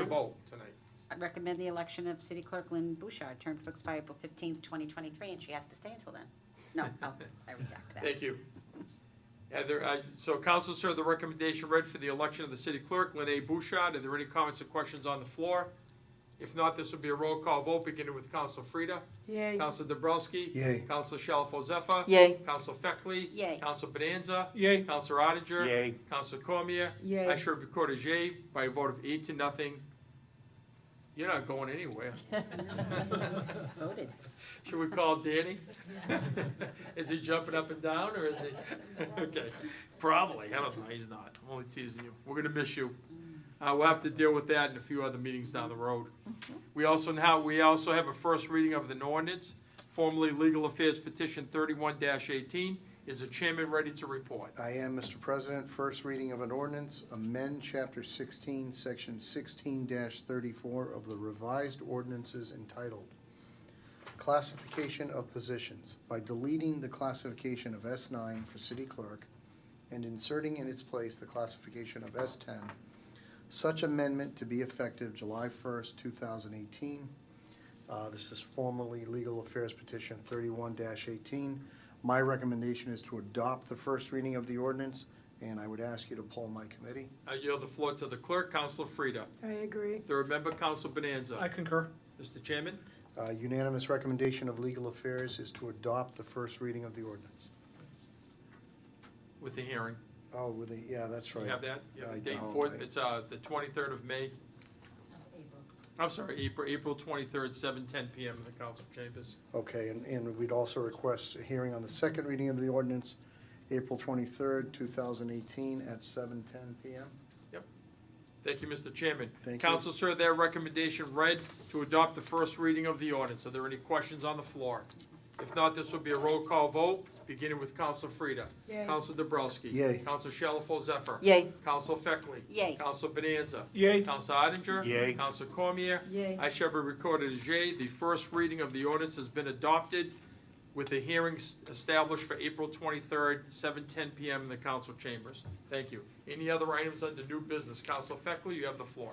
a vote tonight. I recommend the election of City Clerk Lynn Bouchard, term to expire April fifteenth, twenty twenty-three, and she has to stay until then. No, oh, I redact that. Thank you. Yeah, there, uh, so council sir, the recommendation read for the election of the city clerk, Lynn A. Bouchard. Are there any comments or questions on the floor? If not, this will be a roll call vote, beginning with Council Frida. Yay. Council Dobrowski. Yay. Council Shalfo Zephyr. Yay. Council Feckley. Yay. Council Bonanza. Yay. Council Odinger. Yay. Council Cormier. Yay. I should record as yay by a vote of eight to nothing. You're not going anywhere. It's Voted. Should we call Danny? Is he jumping up and down, or is he? Okay, probably, I don't know, he's not, I'm only teasing you, we're gonna miss you. Uh, we'll have to deal with that in a few other meetings down the road. Mm-hmm. We also now, we also have a first reading of the ordinance, formerly Legal Affairs Petition thirty-one eighteen. Is the chairman ready to report? I am, Mr. President. First reading of an ordinance, amend Chapter 16, Section 16-34 of the revised ordinances entitled Classification of Positions by deleting the classification of S9 for city clerk and inserting in its place the classification of S10. Such amendment to be effective July 1st, 2018. Uh, This is formerly Legal Affairs Petition 31-18. My recommendation is to adopt the first reading of the ordinance, and I would ask you to poll my committee. I yield the floor to the clerk, Counselor Frida. I agree. Third member, Counsel Bonanza. I concur. Mr. Chairman? Uh, Unanimous recommendation of Legal Affairs is to adopt the first reading of the ordinance. With the hearing. Oh, with the, yeah, that's You right. have that? You have I the date don't. for, it? it's, uh, the twenty-third of May? I'm sorry, April, April twenty-third, seven ten PM in the council chambers. Okay, and, and we'd also request a hearing on the second reading of the ordinance, April 23rd, 2018, at 7:10 PM. Thank you, Mr. Chairman. Thank you. Council, sir, their recommendation read to adopt the first reading of the ordinance. Are there any questions on the floor? If not, this will be a roll call vote, beginning with Council Frida. Yay. Council Dobrowski. Yay. Council Shalfo Zephyr. Yay. Council Feckley. Yay. Council Bonanza. Yay. Council Odinger. Yay. Council Cormier. Yay. I shall be recorded as yea. The first reading of the ordinance has been adopted with a hearing s- established for April twenty-third, seven ten PM in the council chambers. Thank you. Any other items under new business? Council Feckley, you have the floor.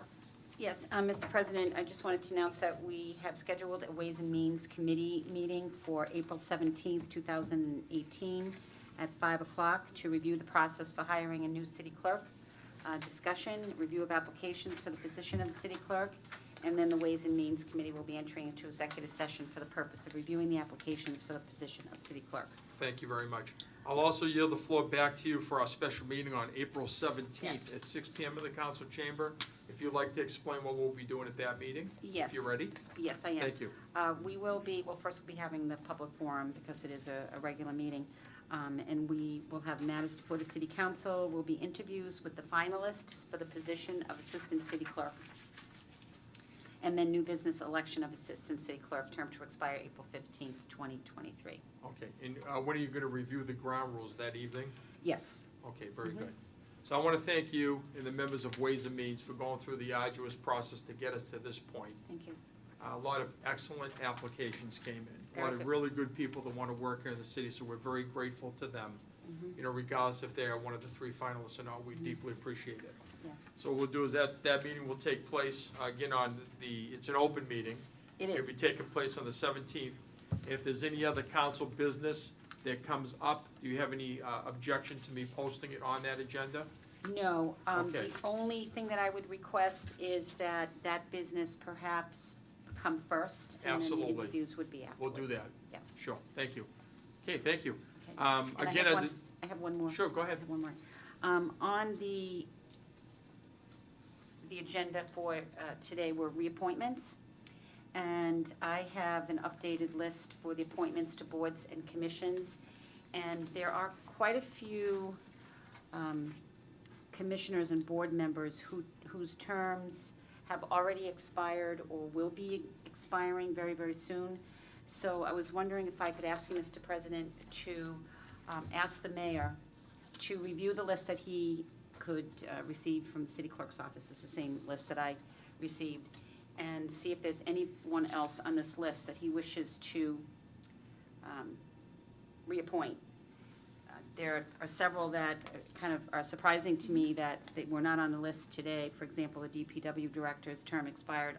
Yes, uh, Mr. President, I just wanted to announce that we have scheduled a Ways and Means Committee meeting for April 17th, 2018, at 5 o'clock to review the process for hiring a new city clerk, uh, discussion, review of applications for the position of the city clerk, and then the Ways and Means Committee will be entering into executive session for the purpose of reviewing the applications for the position of city clerk. Thank you very much. I'll also yield the floor back to you for our special meeting on April seventeenth Yes. at six PM in the council chamber. If you'd like to explain what we'll be doing at that meeting? If Yes. you're ready? Yes, I am. Thank you. Uh, We will be, well, first we'll be having the public forum because it is a, a regular meeting. Um, And we will have matters before the city council, will be interviews with the finalists for the position of assistant city clerk. And then new business election of assistant city clerk, term to expire April fifteenth, twenty twenty-three. Okay, and uh, when are you gonna review the ground rules that evening? Yes, Okay, very good. So I want to thank you and the members of Ways and Means for going through the arduous process to get us to this point. thank you. A lot of excellent applications came in, a lot Very of good. really good people that want to work here in the city, so we're very grateful to them. Mm-hmm. You know, regardless if they are one of the three finalists or not, we deeply appreciate it. Yeah. So what we'll do is that, that meeting will take place, uh, again, on the, it's an open meeting. It It'll be is. taking place on the seventeenth. If there's any other council business that comes up, do you have any uh, objection to me posting it on that agenda? No, um, the Okay. only thing that I would request is that that business perhaps come first. And then the Absolutely. interviews would be We'll afterwards. do that. Yeah. Sure, thank you. Okay, thank you. Okay. Um, And I Again, have I one- I have one more. Sure, go I ahead. have one more. Um, on the, the agenda for, uh, today were reappointments. And I have an updated list for the appointments to boards and commissions. And there are quite a few, um, commissioners and board members who, whose terms have already expired or will be expiring very, very soon. So I was wondering if I could ask you, Mr. President, to um, ask the mayor to review the list that he could uh, receive from the city clerk's office, it's the same list that I received, and see if there's anyone else on this list that he wishes to um, reappoint. Uh, There are several that uh, kind of are surprising to me that they were not on the list today. For example, the DPW director's term expired